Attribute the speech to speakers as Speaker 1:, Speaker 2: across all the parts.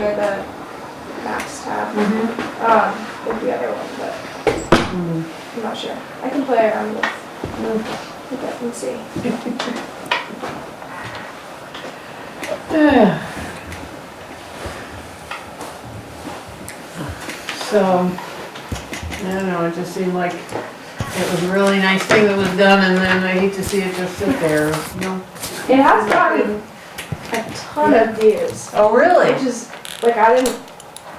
Speaker 1: the maps tab,
Speaker 2: Mhm.
Speaker 1: um, with the other one, but I'm not sure. I can play around with, with it and see.
Speaker 2: So, I don't know, it just seemed like it was a really nice thing that was done and then I hate to see it just sit there, you know?
Speaker 1: It has gotten a ton of views,
Speaker 2: Oh,
Speaker 1: which
Speaker 2: really?
Speaker 1: is, like, I didn't,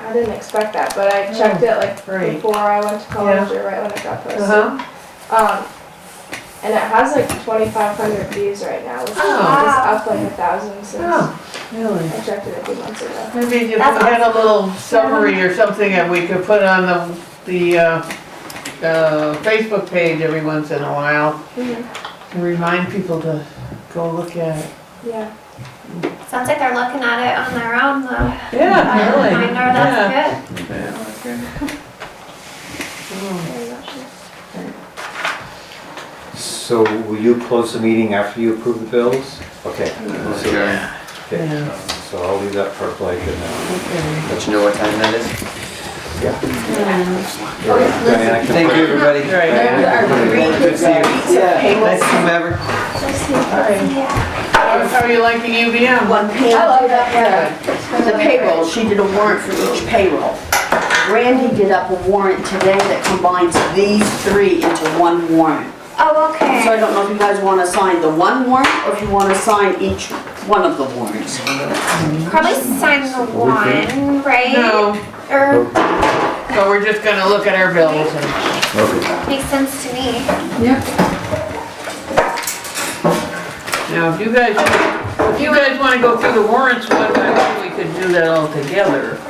Speaker 1: I didn't expect that, but I checked it like
Speaker 2: Oh, Great.
Speaker 1: before I went to college or right when it got posted.
Speaker 2: Uh-huh.
Speaker 1: Um, and it has like 2,500 views right now, which is
Speaker 2: Oh.
Speaker 1: just up like a thousand since
Speaker 2: Oh, really?
Speaker 1: I checked it a few months ago.
Speaker 2: Maybe if we
Speaker 3: That's
Speaker 2: had a little summary or something that we could put on the, the, uh, uh, Facebook page every once in a while to remind people to go look at it.
Speaker 1: Yeah.
Speaker 3: Sounds like they're looking at it on their own though.
Speaker 2: Yeah, really.
Speaker 3: Reminder, that's
Speaker 2: Yeah.
Speaker 1: I'm not sure.
Speaker 4: So will you close the meeting after you approve the bills? Okay.
Speaker 5: Okay.
Speaker 4: Okay. Um, So I'll leave that for Blake and then,
Speaker 2: Okay.
Speaker 5: Let you know what time that is.
Speaker 4: yeah. Diana can-
Speaker 5: Thank you, everybody.
Speaker 2: Right.
Speaker 5: Good to see you. Nice to meet you.
Speaker 3: good. Yeah.
Speaker 2: How how are you liking UVM?
Speaker 6: One payroll, the payroll, she did a warrant for each payroll. Randy did up a warrant today that combines these three into one warrant.
Speaker 3: Oh,
Speaker 6: So I
Speaker 3: okay.
Speaker 6: don't know if you guys want to sign the one warrant or if you want to sign each one of the warrants.
Speaker 3: Probably sign the one, right?
Speaker 2: No,
Speaker 3: Or
Speaker 2: but we're just gonna look at our bills and.
Speaker 3: makes sense to me.
Speaker 2: Now, if you guys, if you guys wanna go through the warrants one by one, we could do that all together.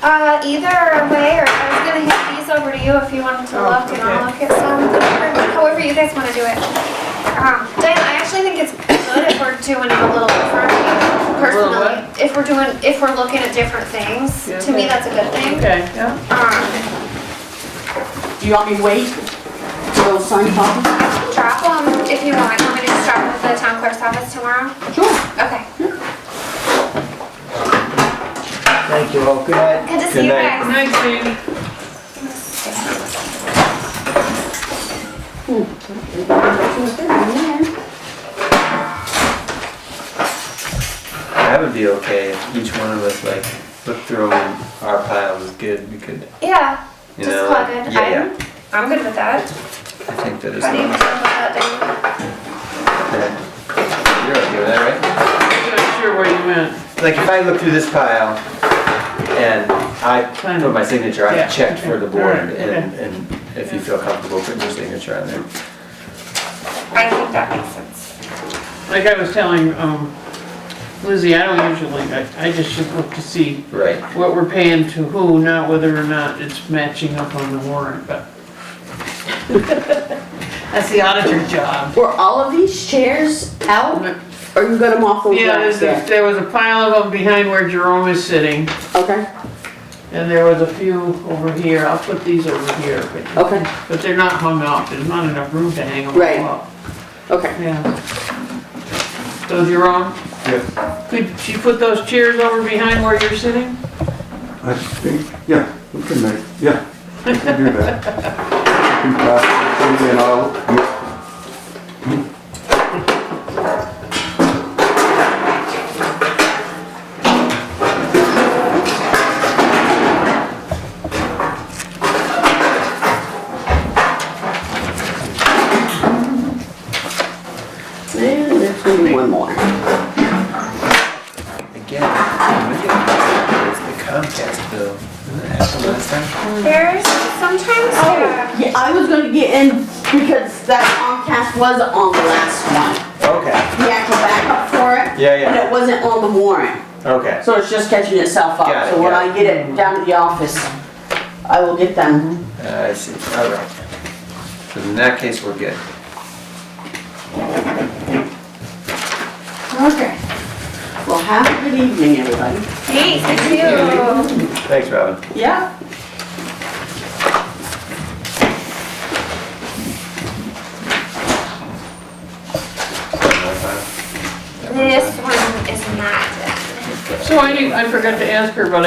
Speaker 3: Uh, either way, or I was gonna hand these over to you if you wanted to
Speaker 2: Oh,
Speaker 3: look and I'll look at some, or however you guys wanna do it. Um, Diane, I actually think it's good if we're doing it a little different,
Speaker 2: little what?
Speaker 3: personally. If we're doing, if we're looking at different things,
Speaker 2: Yeah,
Speaker 3: to me,
Speaker 2: okay.
Speaker 3: that's a good thing.
Speaker 2: Okay, yeah.
Speaker 3: Um,
Speaker 6: Do you want me to wait for those signed copies?
Speaker 3: drop them if you want, I'm gonna just drop them at the town clerk's office tomorrow.
Speaker 6: Sure.
Speaker 3: Okay,
Speaker 5: Thank you all. Good night.
Speaker 3: good to see you
Speaker 4: Good
Speaker 3: guys.
Speaker 4: night.
Speaker 2: Nice thing.
Speaker 5: That would be okay if each one of us like looked through and our pile was good. We could,
Speaker 3: Yeah,
Speaker 5: you
Speaker 3: just
Speaker 5: know.
Speaker 3: plug
Speaker 5: like-
Speaker 3: it.
Speaker 5: Yeah,
Speaker 3: I'm,
Speaker 5: yeah.
Speaker 3: I'm good with that.
Speaker 5: I think that is.
Speaker 3: How do you feel
Speaker 5: okay.
Speaker 3: about that,
Speaker 5: You're okay with that, right?
Speaker 2: I'm not sure where you went.
Speaker 5: Like if I look through this pile and I put my signature,
Speaker 2: Yeah.
Speaker 5: I checked for the
Speaker 2: Okay. All
Speaker 5: board
Speaker 2: right.
Speaker 5: and, and if you feel comfortable putting your signature on there.
Speaker 3: Dave? I think that makes sense.
Speaker 2: Like I was telling, um, Lizzie, I don't usually, I, I just should look to see
Speaker 5: Right.
Speaker 2: what we're paying to who, not whether or not it's matching up on the warrant, but. That's the auditor's job.
Speaker 6: Were all of these chairs out or you got them off those
Speaker 2: Yeah,
Speaker 6: racks
Speaker 2: there's a-
Speaker 6: there?
Speaker 2: there was a pile of them behind where Jerome is sitting,
Speaker 6: Okay,
Speaker 2: and there was a few over here, I'll put these over here. but-
Speaker 6: Okay.
Speaker 2: But they're not hung up, there's not enough room to hang them
Speaker 6: Right.
Speaker 2: all up.
Speaker 6: okay.
Speaker 2: Yeah. So Jerome,
Speaker 7: Yes,
Speaker 2: could you put those chairs over behind where you're sitting?
Speaker 7: I think, yeah, we can make, yeah, we can do that. We can pass it through and I'll-
Speaker 6: There- There's gonna be one more.
Speaker 5: Again, it's the Comcast bill. Didn't that happen last time?
Speaker 3: There's sometimes,
Speaker 6: Oh.
Speaker 3: yeah.
Speaker 6: Yeah, I was gonna get in because that Comcast was on the last one.
Speaker 5: Okay,
Speaker 6: The actual backup for it.
Speaker 5: Yeah, yeah.
Speaker 6: But it wasn't on the warrant,
Speaker 5: okay.
Speaker 6: so it's just catching itself
Speaker 5: Got
Speaker 6: up.
Speaker 5: it,
Speaker 6: So when
Speaker 5: got
Speaker 6: I get it down to the office, I will get them.
Speaker 5: Uh, I see, all right. So in that case, we're good.
Speaker 6: Okay. Well, have a good evening, everybody.
Speaker 3: Hey, thank you.
Speaker 5: Thanks, Robin.
Speaker 6: Yeah.
Speaker 3: This one is not.
Speaker 2: So I didn't, I forgot to ask her, but I